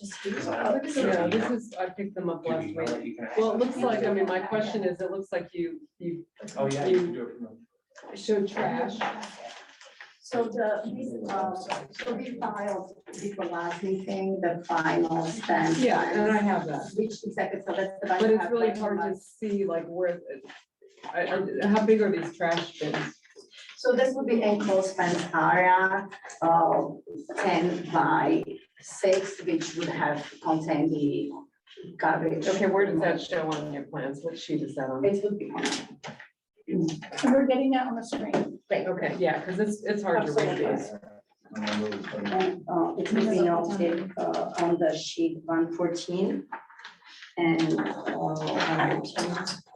just do Uh, it. What is it? Yeah, this is, I picked them up last week. Well, it looks like, I mean, my question is, it looks like you, you Oh, yeah, you can do it from the. showed trash. So the, uh, so we filed with the last meeting, the final spend. Yeah, and I have that. Which exactly, so that's the. But it's really hard to see like where, I, I, how big are these trash bins? So this would be enclosed fenced area, uh, ten by six, which would have contained the garbage. Okay, where does that show on your plans? What sheet is that on? It would be. And we're getting that on the screen. Okay, yeah, because it's, it's hard to read these. And, uh, it will be noted, uh, on the sheet one fourteen. And, uh, one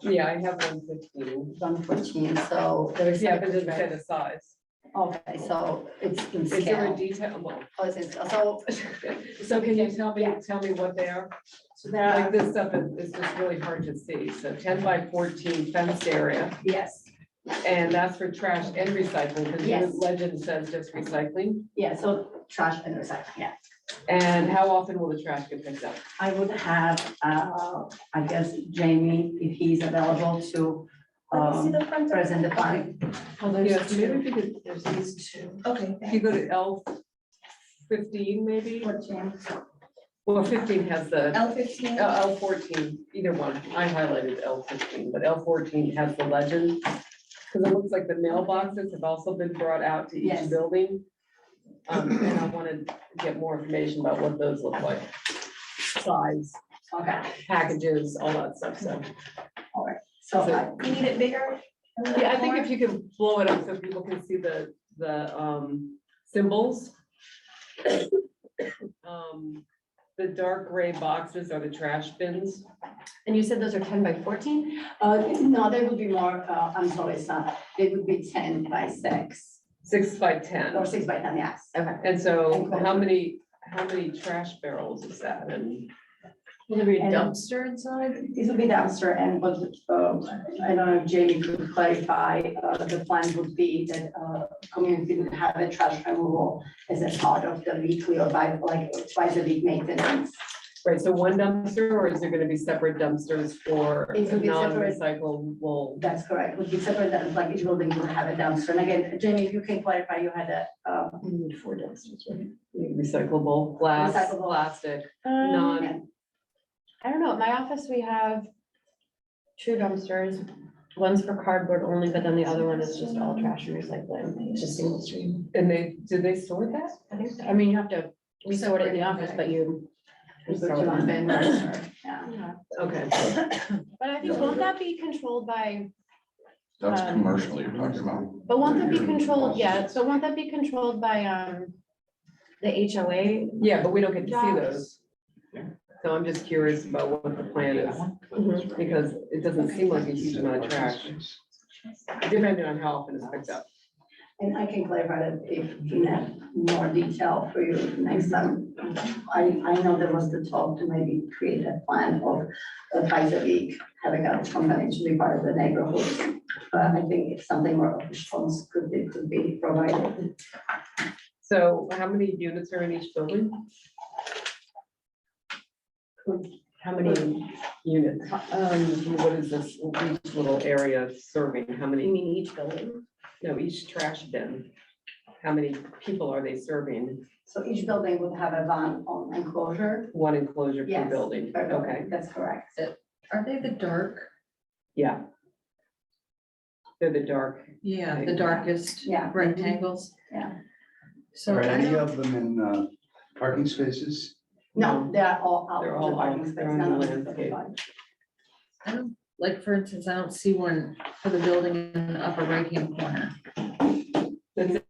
Yeah, I have one fifteen. fourteen, so there's. Yeah, but it doesn't say the size. Okay, so it's in Is there a scale. detail? Well, Oh, it's in scale. So, So can you tell me, tell me what they are? so there Like are, this stuff is, is just really hard to see. So ten by fourteen fenced area, yes, and that's for trash and recycling, because your Yes. legend says just recycling. yeah, so trash and recycling, yeah. And how often will the trash get picked up? I would have, uh, I guess Jamie, if he's available to, Let me see um, the front. present the fine. Oh, Yeah, so maybe if you could, there's these two. Okay. If you go to L fifteen maybe, well, fifteen has the, L fifteen. Oh. L fourteen, either one. I highlighted L fifteen, but L fourteen has the legend. Because it looks like the mailboxes have also been brought out to each Yes. building. Um, and I wanted to get more information about what those look like. Size, Okay, packages, all that stuff, so. so I, You need it bigger? A little Yeah, I think more? if you can blow it up so people can see the, the, um, symbols. Um, the dark gray boxes are the trash bins. And you said those are ten by fourteen? uh, no, there would be more, uh, I'm sorry, son, it would be ten by six, six by ten. or six by ten, yes. Okay. And so how many, how many trash barrels is that? And Will there be a And- dumpster inside? It would be the answer, and what, um, I don't know if Jamie could clarify, uh, the plan would be that, uh, community would have a trash removal as a part of the weekly or by, like, twice a week maintenance. Right, so one dumpster or is there gonna be separate dumpsters for It will be separate. non-recyclable? That's correct, would be separate, that, like, each building would have a dumpster, and again, Jamie, if you can clarify, you had a, uh, We need four dumpsters, right? Recyclable, glass, Recyclable. plastic, Um, non, I don't know. At my office, we have two dumpsters. One's for cardboard only, but then the other one is just all trash and recycling. It's just single stream. and they, do they sort that? I think, so. I mean, you have to, we sort it in the office, but you. you put throw you it on bin in. dumpster, yeah. Okay, But I think, won't that be controlled by, That's Um, commercial you're talking about. but won't that be controlled, yeah, so won't that be controlled by, um, the HOA? yeah, but we don't get to see Yeah. those. So I'm just curious about what the plan is, because it doesn't seem like a huge amount of trash, depending on how often it's picked up. And I can clarify that if you have more detail for you next time. I, I know there was the talk to maybe create a plan of uh, twice a week, having a company to be part of the neighborhood. But I think if something more of response could be, could be provided. So how many units are in each building? How many units? Um, what is this, each little area serving, how You many, mean each building? no, each trash bin? How many people are they serving? So each building would have a van on enclosure. One enclosure per Yes, building, per building, okay, That's correct. Are they the dark? yeah. They're the dark, Yeah, the darkest Yeah. rectangles. Yeah. So Are I any don't, of them in uh, parking spaces? No, they are all out They're of all the parking out, space. they're on none the of them are landscape. occupied. I don't- like, for instance, I don't see one for the building in the upper right hand corner. that's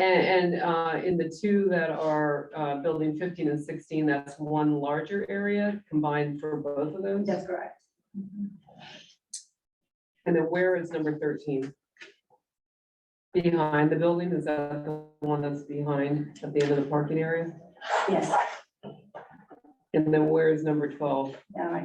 And, and, uh, in the two that are, uh, building fifteen and sixteen, that's one larger area combined for both of those. That's correct. And then where is number thirteen? Behind the building, is that the one that's behind at the end of the parking area? Yes, And then where is number twelve? yeah,